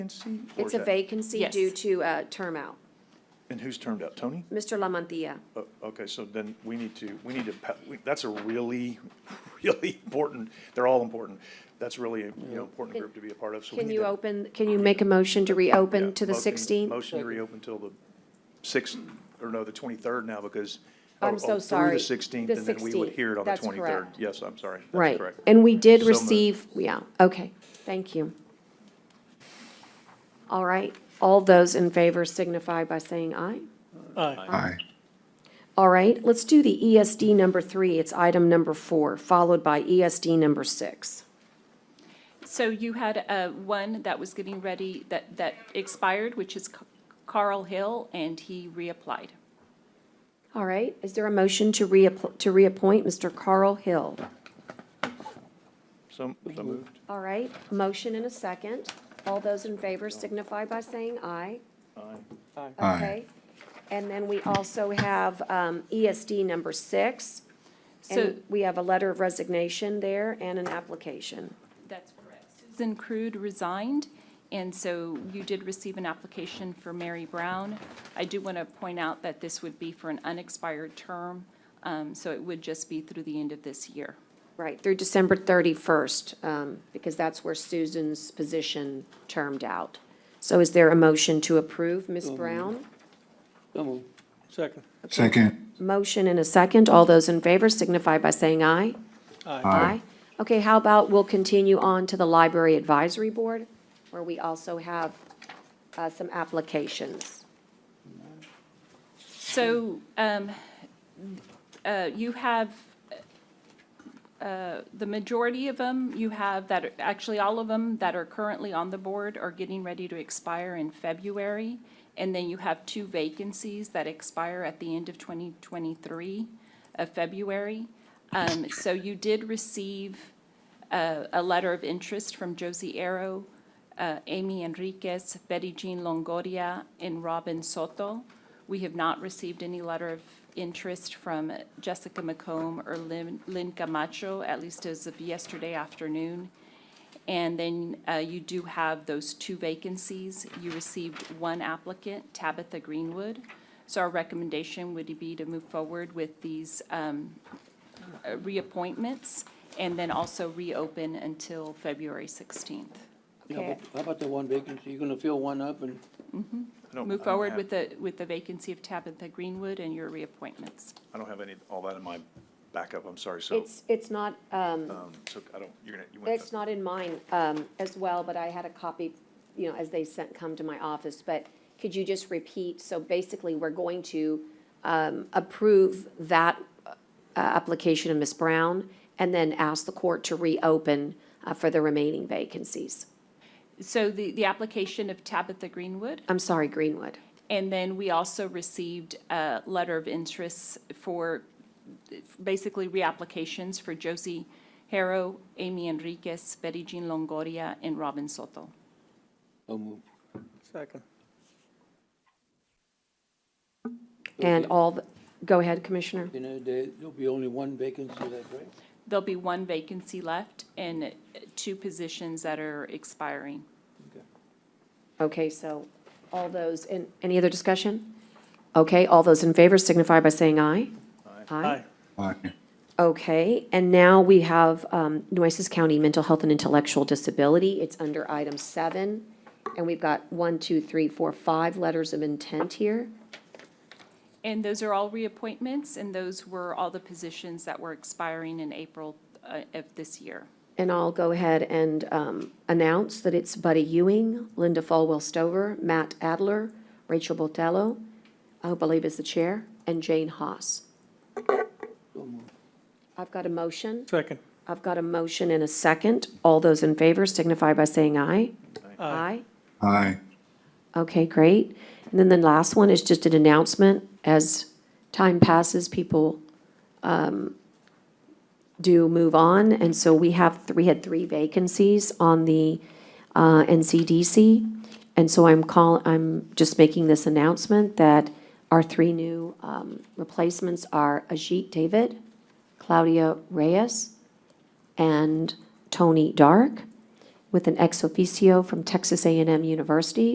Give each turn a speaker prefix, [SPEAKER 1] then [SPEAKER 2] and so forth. [SPEAKER 1] vacancy? or
[SPEAKER 2] It's
[SPEAKER 1] is
[SPEAKER 2] a
[SPEAKER 1] that-
[SPEAKER 2] vacancy
[SPEAKER 3] Yes.
[SPEAKER 2] due to uh, term out.
[SPEAKER 1] And who's termed out? Tony?
[SPEAKER 2] Mr. Lamantia.
[SPEAKER 1] Oh, Okay, so then we need to, we need to, pa- we- that's a really, really important, they're all important. That's really, you know, important group to be a part of, so we
[SPEAKER 2] Can
[SPEAKER 1] need
[SPEAKER 2] you
[SPEAKER 1] to-
[SPEAKER 2] open, can you make a motion to reopen
[SPEAKER 1] yeah,
[SPEAKER 2] to the
[SPEAKER 1] motion-
[SPEAKER 2] 16th?
[SPEAKER 1] Motion to reopen till the sixth, or no, the twenty-third now, because. or-
[SPEAKER 2] I'm
[SPEAKER 1] or
[SPEAKER 2] so
[SPEAKER 1] Through
[SPEAKER 2] sorry.
[SPEAKER 1] the sixteenth,
[SPEAKER 2] The
[SPEAKER 1] and then we would
[SPEAKER 2] 16th,
[SPEAKER 1] hear it on the
[SPEAKER 2] that's
[SPEAKER 1] twenty-third.
[SPEAKER 2] correct.
[SPEAKER 1] Yes, I'm sorry, that's
[SPEAKER 2] Right.
[SPEAKER 1] correct.
[SPEAKER 2] And we did
[SPEAKER 1] So moved.
[SPEAKER 2] receive, yeah, okay, thank you. All right, all those in favor signify by saying aye.
[SPEAKER 4] Aye.
[SPEAKER 2] All right, let's do the ESD number three. It's item number four, followed by ESD number six.
[SPEAKER 3] So you had uh, one that was getting ready, that, that expired, which is Ca- Carl Hill, and he reapplied.
[SPEAKER 2] All right, is there a motion to reapp, to reappoint Mr. Carl Hill?
[SPEAKER 1] So, so moved.
[SPEAKER 2] All right, motion and a second. All those in favor signify by saying aye.
[SPEAKER 4] Aye.
[SPEAKER 2] Okay. And then we also have um, ESD number six.
[SPEAKER 3] So
[SPEAKER 2] And we have a letter of resignation there and an application.
[SPEAKER 3] that's correct. Susan Crude resigned, and so you did receive an application for Mary Brown. I do want to point out that this would be for an unexpired term, um, so it would just be through the end of this year.
[SPEAKER 2] Right, through December 31st, um, because that's where Susan's position termed out. So is there a motion to approve, Ms. Brown?
[SPEAKER 5] Come on. Second.
[SPEAKER 4] Second.
[SPEAKER 2] Motion and a second. All those in favor signify by saying aye. Aye. Okay, how about we'll continue on to the Library Advisory Board, where we also have uh, some applications.
[SPEAKER 3] So um, uh, you have, uh, the majority of them, you have that, are- actually, all of them that are currently on the board are getting ready to expire in February. And then you have two vacancies that expire at the end of 2023 of February. Um, So you did receive uh, a letter of interest from Josie Arrow, uh, Amy Enriquez, Betty Jean Longoria, and Robin Soto. We have not received any letter of interest from Jessica McComb or Lynn Lynn Camacho, at least as of yesterday afternoon. And then uh, you do have those two vacancies. You received one applicant, Tabitha Greenwood. So our recommendation would be to move forward with these um, uh, reappointments and then also reopen until February 16th.
[SPEAKER 5] Yeah,
[SPEAKER 2] Okay.
[SPEAKER 5] but How about the one vacancy? You're gonna fill one up and,
[SPEAKER 1] I don't- Oh, I
[SPEAKER 3] Move
[SPEAKER 1] don't
[SPEAKER 3] forward
[SPEAKER 1] have-
[SPEAKER 3] with the, with the vacancy of Tabitha Greenwood and your reappointments.
[SPEAKER 1] I don't have any, all that in my backup, I'm sorry, so,
[SPEAKER 2] It's, it's not, um,
[SPEAKER 1] um, so I don't, you're gonna, you went.
[SPEAKER 2] it's not in mine um, as well, but I had a copy, you know, as they sent, come to my office. But could you just repeat? So basically, we're going to um, approve that uh, application of Ms. Brown and then ask the court to reopen uh, for the remaining vacancies.
[SPEAKER 3] So the, the application of Tabitha Greenwood,
[SPEAKER 2] I'm sorry, Greenwood.
[SPEAKER 3] and then we also received a letter of interest for uh, basically reapplications for Josie Harrow, Amy Enriquez, Betty Jean Longoria, and Robin Soto.
[SPEAKER 5] oh, move. Second.
[SPEAKER 2] And
[SPEAKER 5] Okay.
[SPEAKER 2] all, the- go ahead, Commissioner.
[SPEAKER 5] You know, there, there'll be only one vacancy left, right?
[SPEAKER 3] There'll be one vacancy left and uh, two positions that are expiring.
[SPEAKER 5] Okay.
[SPEAKER 2] Okay, so all those, and any other discussion? Okay, all those in favor signify by saying aye. Aye.
[SPEAKER 4] Aye.
[SPEAKER 2] Okay, and now we have um, Nueces County Mental Health and Intellectual Disability. It's under item seven. And we've got one, two, three, four, five letters of intent here.
[SPEAKER 3] And those are all reappointments, and those were all the positions that were expiring in April uh, of this year.
[SPEAKER 2] And I'll go ahead and um, announce that it's Buddy Ewing, Linda Falwell Stover, Matt Adler, Rachel Botello, I believe is the chair, and Jane Haas. I've got a motion.
[SPEAKER 5] Second.
[SPEAKER 2] I've got a motion and a second. All those in favor signify by saying aye. Aye.
[SPEAKER 4] Aye.
[SPEAKER 2] Okay, great. And then the last one is just an announcement. As time passes, people um, do move on, and so we have, we had three vacancies on the uh, NCDC. And so I'm call, I'm just making this announcement that our three new um, replacements are Ajit David, Claudia Reyes, and Tony Dark. with an ex officio from Texas a and M University